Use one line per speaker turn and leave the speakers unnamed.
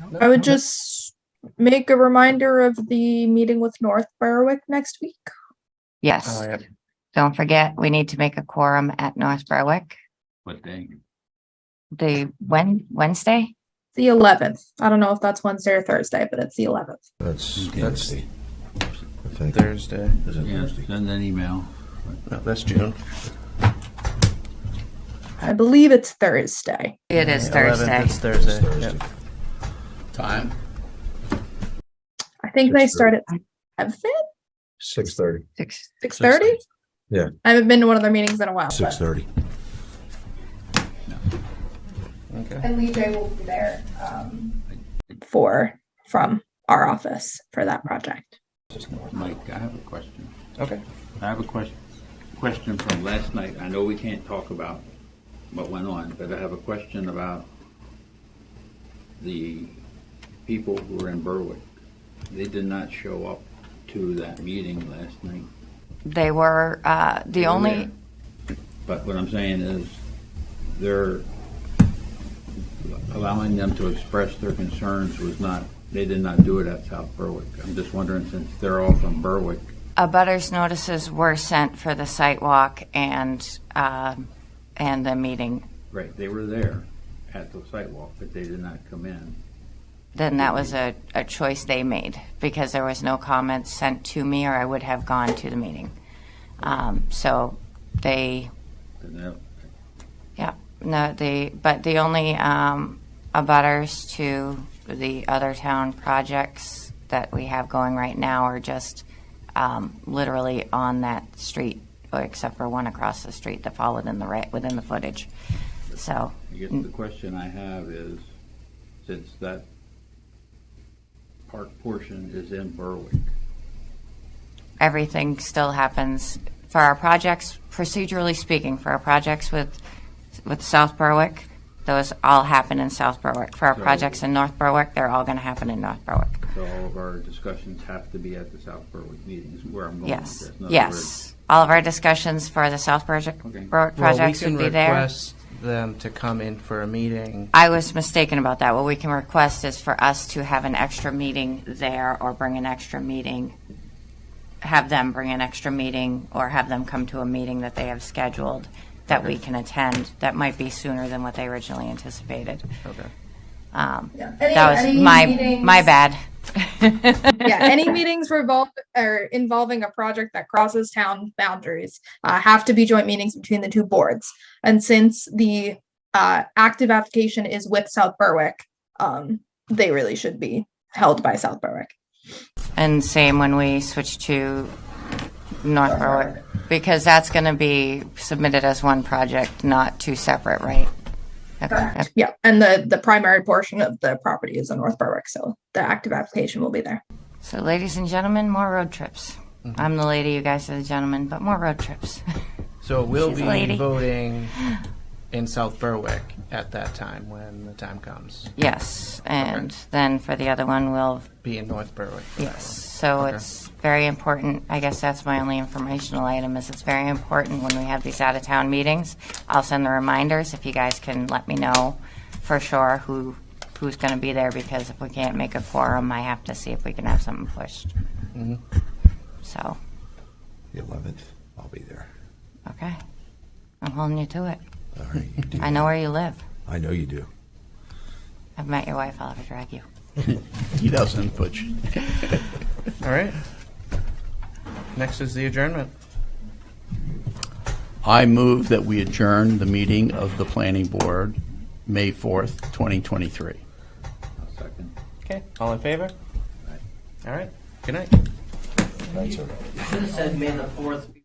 No,
I would
no.
just make a reminder of the meeting with North Berwick next week.
Yes,
Oh, yeah.
don't forget, we need to make a quorum at North Berwick,
What day?
the Wed- Wednesday?
The eleventh. I don't know if that's Wednesday or Thursday, but it's the eleventh.
That's,
Okay.
that's, I think,
Thursday.
is it
Yeah,
Thursday?
send an email.
No, that's June.
I believe it's Thursday.
It is Thursday.
It's
It's
Thursday.
Thursday.
Yep.
Time?
I think they start at seven,
Six thirty.
Six-
six thirty?
Yeah.
I haven't been to one of their meetings in a while.
Six thirty.
Okay.
And Lee J will be there, um. For, from our office for that project.
Mike, I have a question.
Okay.
I have a question, question from last night. I know we can't talk about what went on, but I have a question about the people who were in Berwick. They did not show up to that meeting last night.
They were, uh, the only,
But what I'm saying is, they're allowing them to express their concerns was not, they did not do it at South Berwick. I'm just wondering, since they're all from Berwick,
abutters notices were sent for the site walk and, um, and the meeting.
right, they were there at the sidewalk, but they did not come in.
Then that was a, a choice they made because there was no comments sent to me or I would have gone to the meeting. Um, so they
And that-
Yeah, no, the, but the only um, abutters to the other town projects that we have going right now are just um, literally on that street, except for one across the street that followed in the right, within the footage. So,
I guess the question I have is, since that park portion is in Berwick,
everything still happens for our projects, procedurally speaking, for our projects with, with South Berwick, those all happen in South Berwick. For our
So-
projects in North Berwick, they're all going to happen in North Berwick.
so all of our discussions have to be at the South Berwick meetings, where I'm going with
Yes,
this. In other words,
yes. All of our discussions for the South Project,
Okay.
Road projects
well, we
would
can
be there.
request them to come in for a meeting.
I was mistaken about that. What we can request is for us to have an extra meeting there or bring an extra meeting, have them bring an extra meeting or have them come to a meeting that they have scheduled that we can attend. That might be sooner than what they originally anticipated.
Okay.
Um,
Yeah.
That was my, my bad.
yeah, any meetings revolve or involving a project that crosses town boundaries uh, have to be joint meetings between the two boards. And since the uh, active application is with South Berwick, um, they really should be held by South Berwick.
And same when we switch to North Berwick, because that's going to be submitted as one project, not two separate, right? Okay.
Yeah, and the the primary portion of the property is in North Berwick, so the active application will be there.
So ladies and gentlemen, more road trips. I'm the lady, you guys are the gentlemen, but more road trips.
So we'll
She's a
be
lady.
voting in South Berwick at that time when the time comes.
Yes, and then for the other one, we'll,
Be in North Berwick. for that
yes. So it's very important, I guess that's my only informational item, is it's very important when we have these out-of-town meetings. I'll send the reminders if you guys can let me know for sure who, who's going to be there, because if we can't make a quorum, I have to see if we can have something pushed.
Mhm.
So,
The eleventh, I'll be there.
okay. I'm holding you to it.
All right. you do.
I know where you live.
I know you do.
I've met your wife, I'll have her drag you.
He doesn't, but you-
one. All right. Next is the adjournment.
I move that we adjourn the meeting of the planning board, May 4th, 2023.
I'll second.
Okay. All in favor? All right. Good night.
That's all right.
Should have said May the fourth be